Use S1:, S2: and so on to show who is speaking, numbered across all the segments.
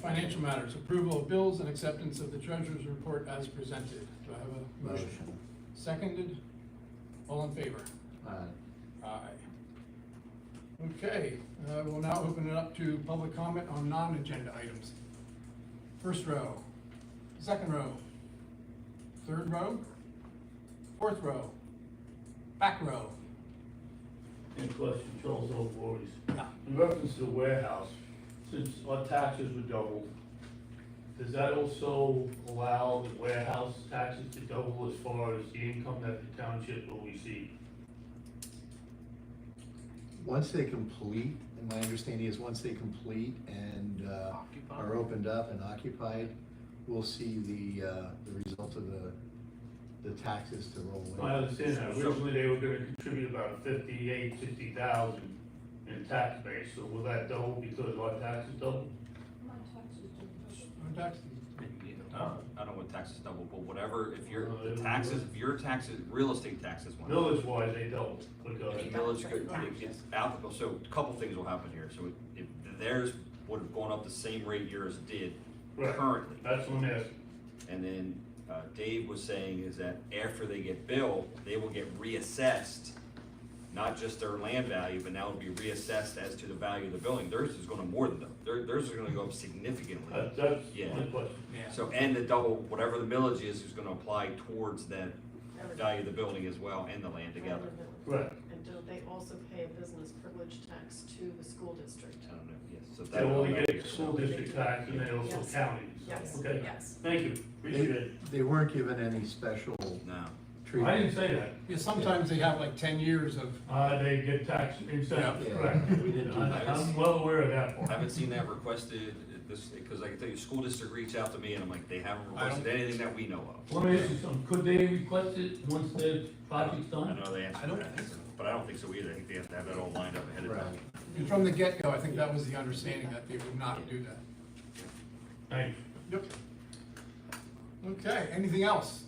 S1: Financial matters, approval of bills and acceptance of the treasurer's report as presented. Do I have a motion?
S2: Motion.
S1: Seconded? All in favor?
S2: Aye.
S1: Aye. Okay, uh, we'll now open it up to public comment on non-agenda items. First row, second row, third row, fourth row, back row.
S3: In question, Charles L. Voorhees.
S1: No.
S3: In reference to the warehouse, since our taxes were doubled, does that also allow the warehouse taxes to double as far as the income that the township will receive?
S2: Once they complete, and my understanding is once they complete and uh, are opened up and occupied, we'll see the, uh, the result of the, the taxes to roll in.
S3: I understand that originally they were gonna contribute about fifty-eight, sixty thousand in tax base, so will that double because our taxes doubled?
S4: My taxes don't.
S1: No taxes.
S5: Uh, I don't know what taxes double, but whatever, if your
S3: Uh,
S5: the taxes, if your taxes, real estate taxes went up.
S3: Village-wise, they doubled, because.
S5: The village, could- it's applicable, so a couple things will happen here, so if theirs would have gone up the same rate yours did
S3: Right.
S5: currently.
S3: That's what I'm asking.
S5: And then uh, Dave was saying is that after they get billed, they will get reassessed, not just their land value, but now it'll be reassessed as to the value of the building. Theirs is gonna more than them, their, theirs is gonna go up significantly.
S3: That- That's
S5: Yeah.
S3: my question.
S1: Yeah.
S5: So, and the double, whatever the millage is, is gonna apply towards that value of the building as well and the land together.
S3: Right.
S4: And don't they also pay a business privilege tax to the school district?
S5: I don't know, yes, so that.
S3: So will we get school district tax and then also
S4: Yes.
S3: county?
S4: Yes,
S3: Okay,
S4: yes.
S3: thank you, appreciate it.
S2: They weren't given any special
S5: No,
S3: I
S2: treatment.
S3: didn't say that.
S1: Yeah, sometimes they have like ten years of,
S3: Uh, they get tax incentives,
S2: Yeah.
S3: correct.
S2: We didn't do
S3: I-
S5: that.
S3: I'm well aware of that
S5: I
S3: part.
S5: haven't seen that requested, uh, this, because I can tell you, school district reached out to me and I'm like, they haven't
S1: I don't-
S5: requested anything that we know of.
S3: Let me ask you something, could they request it once the project's
S5: I
S3: done?
S5: know the
S1: I
S5: answer to
S1: don't
S5: that,
S1: think so.
S5: but I don't think so either, I think they have to have that all lined up ahead of
S2: Right.
S5: time.
S1: and from the get-go, I think that was the understanding that they would not do that.
S3: Thanks.
S1: Yep. Okay, anything else?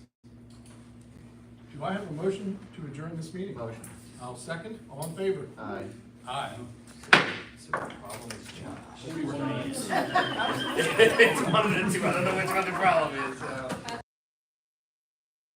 S1: Do I have a motion to adjourn this meeting?
S2: Motion.
S1: I'll second, all in favor?
S2: Aye.
S1: Aye.
S5: So the problem is Josh.
S1: Forty-one minutes.
S5: It's one of the two, I don't know which one the problem is, so.